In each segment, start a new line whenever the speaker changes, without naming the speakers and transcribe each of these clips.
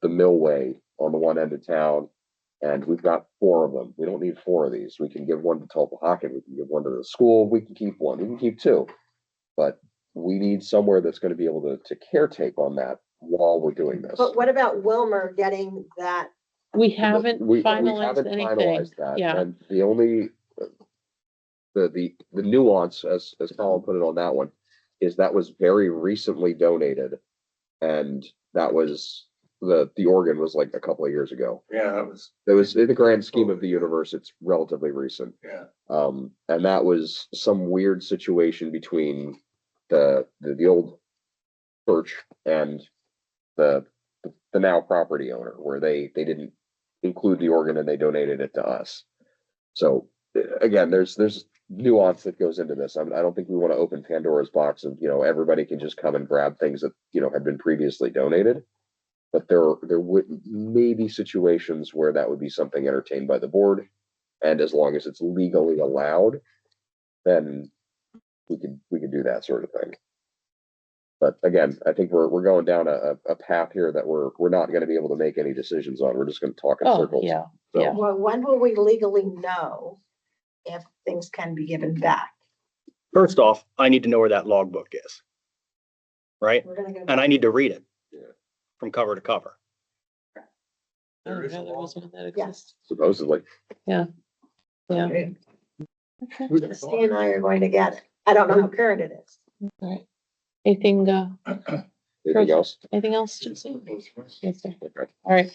the millway on the one end of town and we've got four of them. We don't need four of these. We can give one to Tulpahawken, we can give one to the school, we can keep one, we can keep two. But we need somewhere that's gonna be able to, to caretake on that while we're doing this.
But what about Wilmer getting that?
We
We-
haven't
we haven't
finalized anything.
finalized that,
yeah.
And the only, uh, the, the, the nuance, as, as Colin put it on that one, is that was very recently donated. And that was, the, the organ was like a couple of years ago.
Yeah, that was,
It was, in the grand scheme of the universe, it's relatively recent.
yeah.
Um, and that was some weird situation between the, the, the old church and the, the now property owner, where they, they didn't include the organ and they donated it to us. So uh, again, there's, there's nuance that goes into this. I mean, I don't think we want to open Pandora's box of, you know, everybody can just come and grab things that, you know, had been previously donated. But there, there would, maybe situations where that would be something entertained by the board. And as long as it's legally allowed, then we could, we could do that sort of thing. But again, I think we're, we're going down a, a- a path here that we're, we're not gonna be able to make any decisions on. We're just gonna talk in
Oh,
circles.
yeah.
So-
yeah.
Well, when will we legally know if things can be given back?
First off, I need to know where that logbook is. Right?
We're gonna go.
And I need to read it.
Yeah.
From cover to cover.
I
There
didn't
is a
know there
law.
was one that
Yes.
exists.
Supposedly.
Yeah.
Okay.
Okay.
Who'd have
Christie and I are going to get it. I don't know how current it is.
All right. Anything, uh,
Anything
Perfect.
else?
anything else? Jason?
thought?
Yes, sir.
Okay.
All right.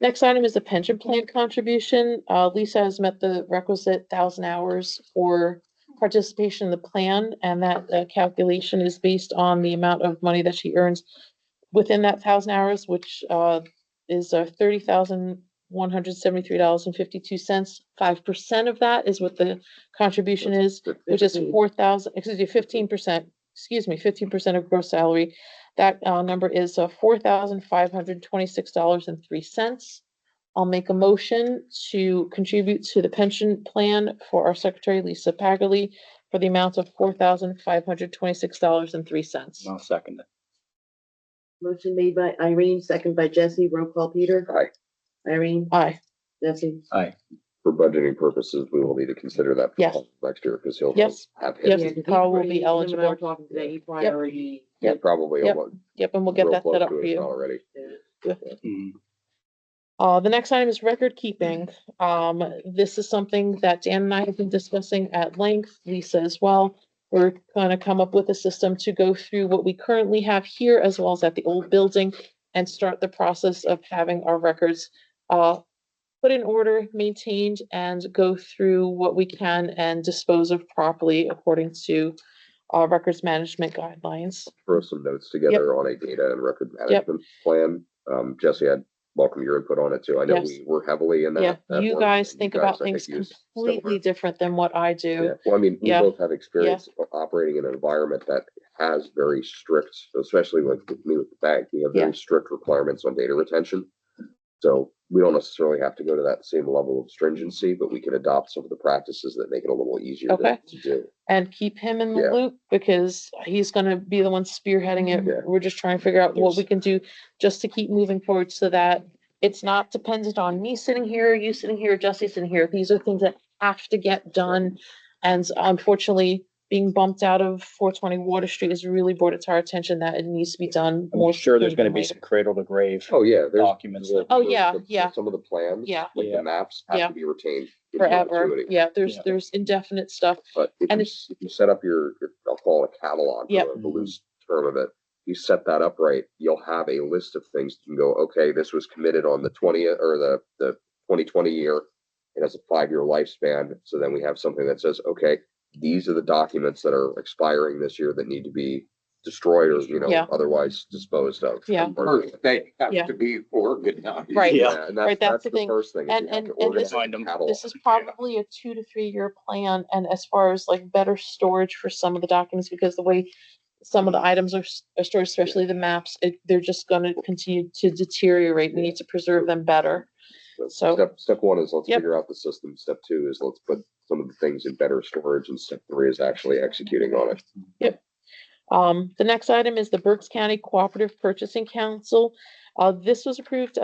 Next item is the pension plan contribution. Uh, Lisa has met the requisite thousand hours for participation in the plan, and that uh, calculation is based on the amount of money that she earns within that thousand hours, which uh, is thirty thousand one hundred seventy-three dollars and fifty-two cents. Five percent of that is what the contribution is which is four thousand, excuse me, fifteen percent, excuse me, fifteen percent of gross salary. That uh number is uh four thousand five hundred twenty-six dollars and three cents. I'll make a motion to contribute to the pension plan for our secretary Lisa Paggerly for the amount of four thousand five hundred twenty-six dollars and three cents.
I'll second it.
Motion made by Irene, second by Jesse, roll call Peter.
Aye.
Irene,
Aye,
Jesse,
For budgeting purposes, we will need to consider that. for
Yes.
Next year, because he'll. he'll
Yes.
Have hit.
Yes,
Yeah, 'cause he
Carl will be
already- him and I
eligible.
were Talking today, he probably
Yep.
already.
He
Yep.
Probably.
Yep.
almost-
yep, and we'll get
real
that
close
set up
to
for
it
you.
Already.
Uh, the next item is record keeping.
Mm-hmm.
Um, this is something that Dan and I have been discussing at length, Lisa as well. We're gonna come up with a system to go through what we currently have here as well as at the old building and start the process of having our records uh put in order, maintained, and go through what we can and dispose of properly according to uh records management guidelines.
Throw some notes together on a data and record management plan. Um, Jesse, I'd welcome your input on it too. I know
Yes.
we were heavily in
Yeah,
that. that
you
work,
guys
and
think
you
about
guys, I
things
use
completely
similar-
different than what I do.
Yeah. Well, I mean, we
Yeah.
both have experience o- operating in an environment that has very strict, especially with with me with the bank, we have
Yeah.
very strict requirements on data retention. So we don't necessarily have to go to that same level of stringency, but we can adopt some of the practices that make it a little easier to
Okay.
to do.
and keep him in
Yeah.
the loop because he's gonna be the one spearheading
Yeah.
it. We're just trying to figure out what we can do just to keep moving forward so that it's not dependent on me sitting here, you sitting here, Jesse sitting here. These are things that have to get done. And unfortunately, being bumped out of four twenty Water Street has really brought it to our attention that it needs to be done
I'm
more.
sure there's
sooner
gonna
than
be
later.
some cradle to grave
Oh, yeah, there's.
documents. that-
Oh,
the-
yeah,
the-
yeah.
Some of the plans.
Yeah.
Like
Yeah.
the maps
Yeah.
have to be retained. in
Forever.
perpetuity.
Yeah, there's,
Yeah.
there's indefinite stuff.
But if
And
you, s- if you set up your, your- I'll call it a catalog,
Yep.
for the loose term of it. You set that up right, you'll have a list of things you can go, okay, this was committed on the twentieth or the, the twenty twenty year. It has a five-year lifespan, so then we have something that says, okay, these are the documents that are expiring this year that need to be destroyed or, you know,
Yeah.
otherwise disposed of.
Yeah.
and burned.
First, they
Yeah.
have to be organized.
Right.
Yeah.
And
Right,
that's, that's
that's the
the
thing.
first thing. is
And-
you have
and-
to
and this-
organize the
Find 'em.
catalog.
This is probably a two to three year plan and as far as like better storage for some of the documents, because the way some of the items are, s- are stored, especially the maps, it, they're just gonna continue to deteriorate. We need to preserve them better. So-
Step, step one is let's
Yep.
figure out the system. Step two is let's put some of the things in better storage and step three is actually executing on it.
Um, the next item is the Berks County Cooperative Purchasing Council. Uh, this was approved at